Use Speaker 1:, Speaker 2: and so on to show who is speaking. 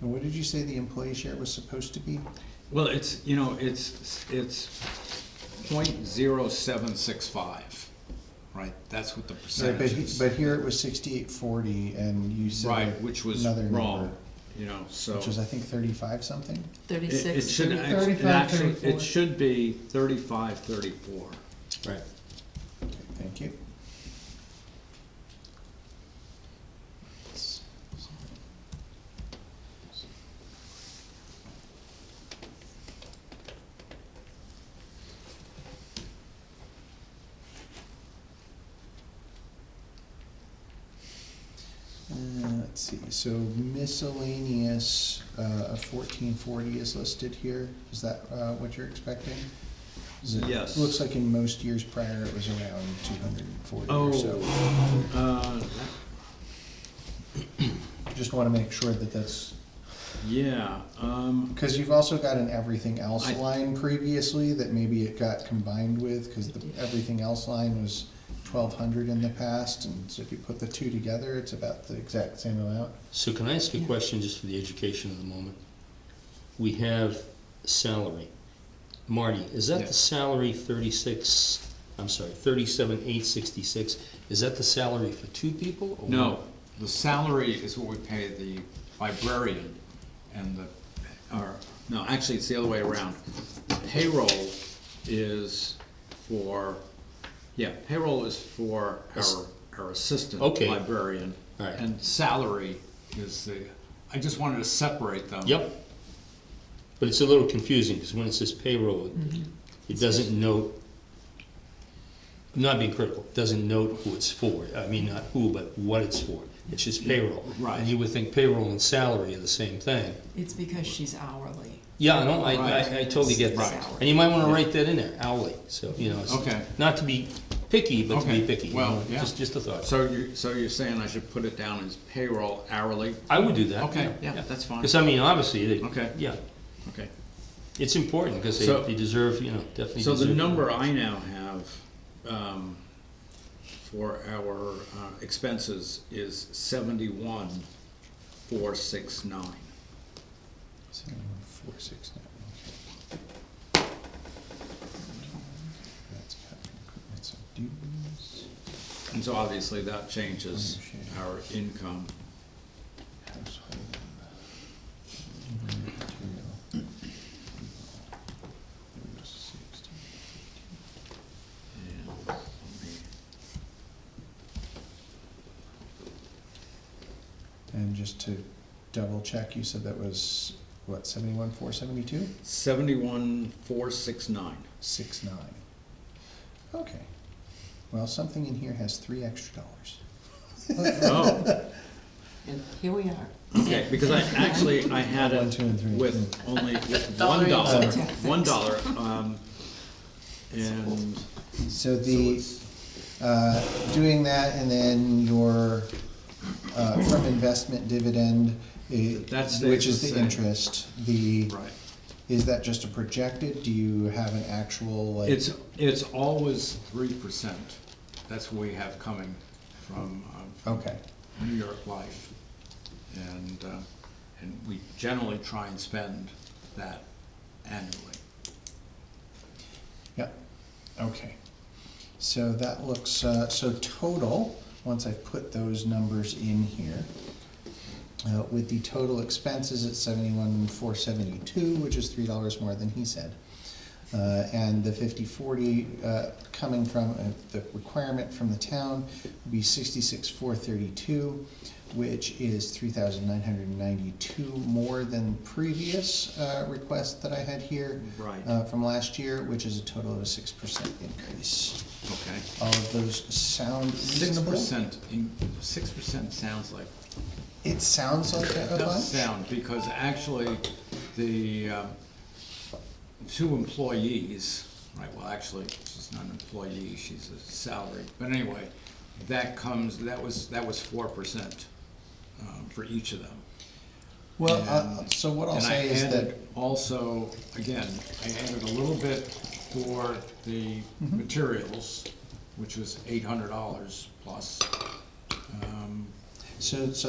Speaker 1: And what did you say the employee share was supposed to be?
Speaker 2: Well, it's, you know, it's, it's point zero seven six five, right? That's what the
Speaker 1: Right, but,
Speaker 2: percentage
Speaker 1: he-
Speaker 2: is.
Speaker 1: but here it was sixty-eight forty, and you
Speaker 2: Right,
Speaker 1: said
Speaker 2: which was
Speaker 1: another number,
Speaker 2: wrong, you know, so.
Speaker 1: which was, I think, thirty-five something?
Speaker 2: It- It
Speaker 3: Thirty-six.
Speaker 2: should,
Speaker 3: should be-
Speaker 2: act- it
Speaker 4: 35,
Speaker 2: actually, it
Speaker 4: 34.
Speaker 2: should be thirty-five, thirty-four.
Speaker 1: Right. Thank you. Uh, Let's see, so miscellaneous, uh, fourteen forty is listed here, is that, uh, what you're expecting? Is it-
Speaker 2: Yes.
Speaker 1: Looks like in most years prior, it was around two hundred and forty
Speaker 2: Oh,
Speaker 1: or so.
Speaker 2: uh, that-
Speaker 1: Just wanna make sure that that's,
Speaker 2: yeah, um,
Speaker 1: cause you've also got an everything else
Speaker 2: I-
Speaker 1: line previously that maybe it got combined with, cause the everything else line was twelve hundred in the past, and so if you put the two together, it's about the exact same amount.
Speaker 5: So can I ask a question just for the education of the moment? We have salary. Marty, is that
Speaker 2: Yeah.
Speaker 5: the salary thirty-six, I'm sorry, thirty-seven, eight sixty-six? Is that the salary for two people? or-
Speaker 2: no, the salary is what we pay the librarian and the, or, no, actually, it's the other way around. Payroll is for, yeah, payroll is for our, our assistant
Speaker 5: Okay.
Speaker 2: librarian.
Speaker 5: All right.
Speaker 2: And salary is the, I just wanted to separate them.
Speaker 5: Yep. But it's a little confusing, because when it says payroll, it- it doesn't note, I'm not being critical, it doesn't note who it's for. I mean, not who, but what it's for. It's just payroll.
Speaker 2: Right.
Speaker 5: And you would think payroll and salary are the same thing.
Speaker 3: It's because she's hourly.
Speaker 5: Yeah, no, I, I,
Speaker 2: Right.
Speaker 5: I totally get
Speaker 2: Right.
Speaker 5: that. And you might wanna write that in there, hourly, so, you know,
Speaker 2: Okay.
Speaker 5: it's, not to be picky, but to
Speaker 2: Okay.
Speaker 5: be picky. you
Speaker 2: Well,
Speaker 5: know,
Speaker 2: yeah.
Speaker 5: Just, just a thought.
Speaker 2: So you, so you're saying I should put it down as payroll hourly?
Speaker 5: I would do that.
Speaker 2: Okay, yeah, that's fine.
Speaker 5: Cause I mean, obviously, they,
Speaker 2: Okay.
Speaker 5: yeah,
Speaker 2: Okay.
Speaker 5: it's important, cause they,
Speaker 2: So-
Speaker 5: they deserve, you know, definitely
Speaker 2: So
Speaker 5: deserve.
Speaker 2: the number I now have um, for our uh, expenses is seventy-one, four, six, nine.
Speaker 1: Seven, four, six, nine, okay. That's capital equipment, so dues,
Speaker 2: And so obviously that changes
Speaker 1: Oh,
Speaker 2: our income.
Speaker 1: household, building material, people, dues, sixteen.
Speaker 2: and let me-
Speaker 1: And just to double check, you said that was, what, seventy-one, four, seventy-two?
Speaker 2: Seventy-one, four, six, nine.
Speaker 1: Six, nine. Okay. Well, something in here has three extra dollars.
Speaker 2: Oh.
Speaker 3: And here we are.
Speaker 2: Okay, because I, actually, I had
Speaker 1: One,
Speaker 2: it
Speaker 1: two, and three.
Speaker 2: with only, with
Speaker 3: Dollar
Speaker 2: one
Speaker 3: each.
Speaker 2: dollar,
Speaker 3: Yeah,
Speaker 2: one
Speaker 3: thanks.
Speaker 2: dollar, um, and.
Speaker 1: So the, uh, doing that and then your, uh, from investment dividend, eh,
Speaker 2: That stays
Speaker 1: which
Speaker 2: the
Speaker 1: is the
Speaker 2: same.
Speaker 1: interest, the,
Speaker 2: Right.
Speaker 1: is that just a projected? Do you have an actual, like?
Speaker 2: It's, it's always three percent. That's what we have coming from, um, from
Speaker 1: Okay,
Speaker 2: New York Life. And, uh, and we generally try and spend that annually.
Speaker 1: yep, okay. So that looks, uh, so total, once I've put those numbers in here, uh, with the total expenses at seventy-one, four seventy-two, which is three dollars more than he said. Uh, and the fifty, forty, uh, coming from, uh, the requirement from the town would be sixty-six, four thirty-two, which is three thousand nine hundred and ninety-two more than previous, uh, request that I had here.
Speaker 2: Right.
Speaker 1: Uh, from last year, which is a total of a six percent increase.
Speaker 2: Okay.
Speaker 1: All of those sound
Speaker 2: Six
Speaker 1: reasonable?
Speaker 2: percent, six percent sounds like
Speaker 1: It sounds like a a
Speaker 2: It does
Speaker 1: bunch?
Speaker 2: sound, because actually, the um, two employees, right, well, actually, she's not an employee, she's a salary, but anyway, that comes, that was, that was four percent um, for each of them.
Speaker 1: Well, uh, so what I'll
Speaker 2: And I
Speaker 1: say is that,
Speaker 2: added Also, again, I added a little bit for the
Speaker 1: Mm-hmm.
Speaker 2: materials, which was eight hundred dollars plus. Um,
Speaker 1: so, so